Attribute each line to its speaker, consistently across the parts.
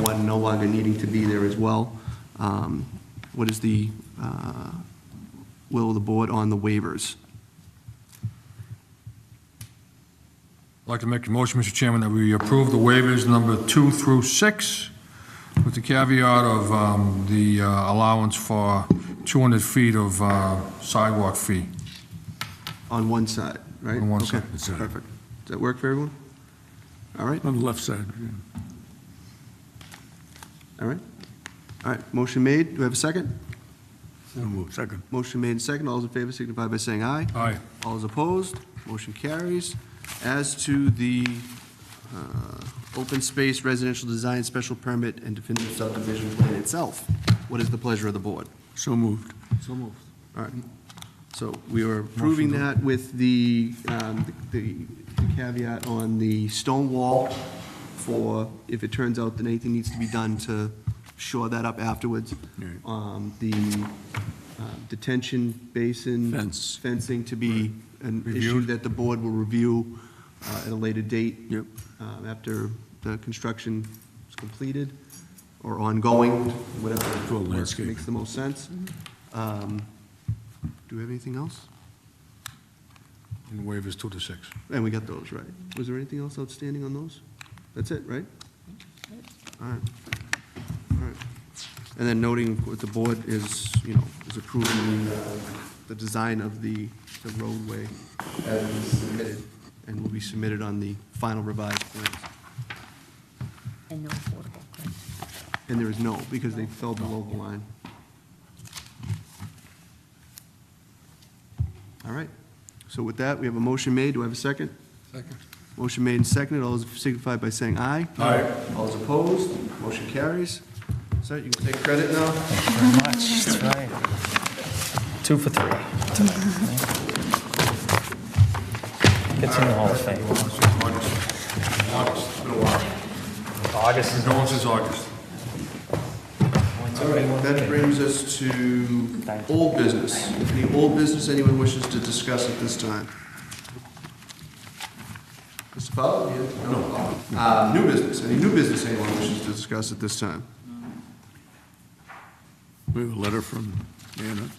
Speaker 1: no longer needing to be there as well. Um, What is the uh, will of the board on the waivers?
Speaker 2: I'd like to make a motion, Mr. Chairman, that we approve the waivers number two through six with the caveat of um, the uh, allowance for 200 feet of uh, sidewalk fee.
Speaker 1: On one side, right?
Speaker 2: On one
Speaker 1: Okay,
Speaker 2: side, that's it.
Speaker 1: Perfect. Does that work for everyone? All right,
Speaker 3: On the left side, yeah.
Speaker 1: all right. All right, motion made. Do we have a second?
Speaker 3: So moved. second.
Speaker 1: Motion made and second. All those in favor signify by saying aye.
Speaker 2: Aye.
Speaker 1: All is opposed, motion carries. As to the uh, open space residential design special permit and definitive subdivision plan itself, what is the pleasure of the board?
Speaker 3: So moved. So moved.
Speaker 1: All right, so we are approving that with the um, the the caveat on the stone wall for, if it turns out that anything needs to be done to shore that up afterwards.
Speaker 3: Right.
Speaker 1: Um, The uh, detention basin.
Speaker 3: Fence.
Speaker 1: Fencing to be an issue
Speaker 2: Reviewed.
Speaker 1: that the board will review uh, at a later date.
Speaker 3: Yep.
Speaker 1: um, After the construction is completed or ongoing, whatever.
Speaker 3: For
Speaker 1: works-
Speaker 3: landscaping.
Speaker 1: Makes the most sense. Um, do we have anything else?
Speaker 2: And waivers two to six.
Speaker 1: And we got those, right? Was there anything else outstanding on those? That's it, right? All right. All right. And then noting what the board is, you know, is approving the, uh, the design of the, the roadway as it is submitted and will be submitted on the final revised plans.
Speaker 4: And no affordable, correct?
Speaker 1: And there is no, because they fell below the line. All right. So with that, we have a motion made. Do I have a second? Second. Motion made and seconded. All those signify by saying aye.
Speaker 2: Aye.
Speaker 1: All those opposed, motion carries. Sir, you can take credit now.
Speaker 5: much. That's right. Two for three. Gets in the Hall of Fame.
Speaker 2: August, August, it's been a while.
Speaker 5: August is
Speaker 2: Condolences, August.
Speaker 1: That brings us to
Speaker 5: Thank you.
Speaker 1: old business. Any old business anyone wishes to discuss at this time? Mr. Fowler? you- No. Uh, New business, any new business anyone wishes to discuss at this time?
Speaker 3: We have a letter from Anna.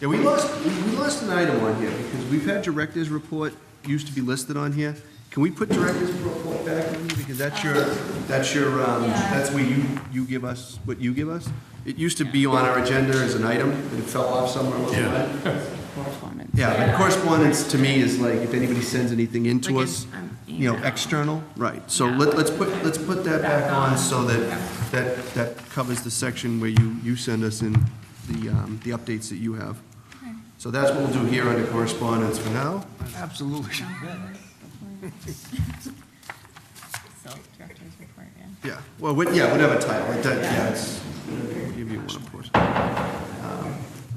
Speaker 1: Yeah, we lost, we we lost an item on here, because we've had director's report, used to be listed on here. Can we put director's report back in, because that's your, that's your, um, that's where you, you give us, what you give us? It used to be on our agenda as an item, and it fell off somewhere along the line.
Speaker 4: Correspondence.
Speaker 1: Yeah, but correspondence to me is like, if anybody sends anything in to
Speaker 4: Like an-
Speaker 1: us,
Speaker 4: an
Speaker 1: you know,
Speaker 4: email.
Speaker 1: external, right. So let, let's put, let's put that back on, so that, that, that covers the section where you, you send us in the, um, the updates that you have. So that's what we'll do here under correspondence for now.
Speaker 3: Absolutely.
Speaker 4: So, director's report, yeah.
Speaker 1: Yeah, well, what- yeah, whatever title, like that, yeah, it's, we'll give you one, of course.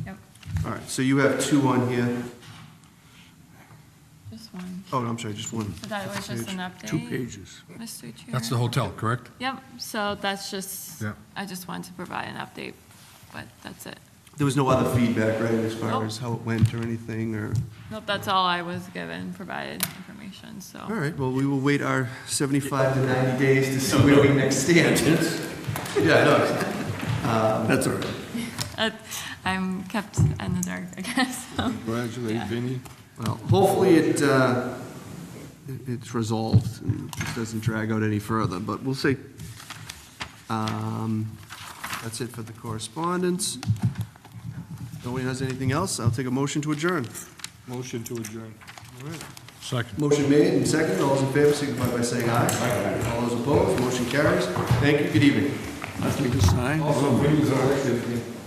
Speaker 4: Yep,
Speaker 1: All right, so you have two on here.
Speaker 4: just one.
Speaker 1: Oh, no, I'm sorry, just one.
Speaker 4: So that was just an update?
Speaker 3: Two pages.
Speaker 4: Mr. Chair?
Speaker 2: That's the hotel, correct?
Speaker 4: Yep, so that's just,
Speaker 2: Yeah.
Speaker 4: I just wanted to provide an update, but that's it.
Speaker 1: There was no other feedback, right, as far
Speaker 4: Nope.
Speaker 1: as how it went or anything, or?
Speaker 4: Nope, that's all I was given, provided information, so.
Speaker 1: All right, well, we will wait our 75 to 90 days to see where we next stand. Yeah, no, Um,
Speaker 3: That's all right.
Speaker 4: Uh, I'm kept in the dark, I guess, so.
Speaker 3: Congratulate Vinnie.
Speaker 1: well, hopefully it, uh, it- it's resolved and it doesn't drag out any further, but we'll see. Um, That's it for the correspondence. Nobody has anything else? I'll take a motion to adjourn.
Speaker 2: Motion to adjourn. Second.
Speaker 1: Motion made and seconded. All those in favor signify by saying aye. All those opposed, motion carries. Thank you, good evening.
Speaker 3: Nothing to sign?
Speaker 6: Also, Vinnie's on it,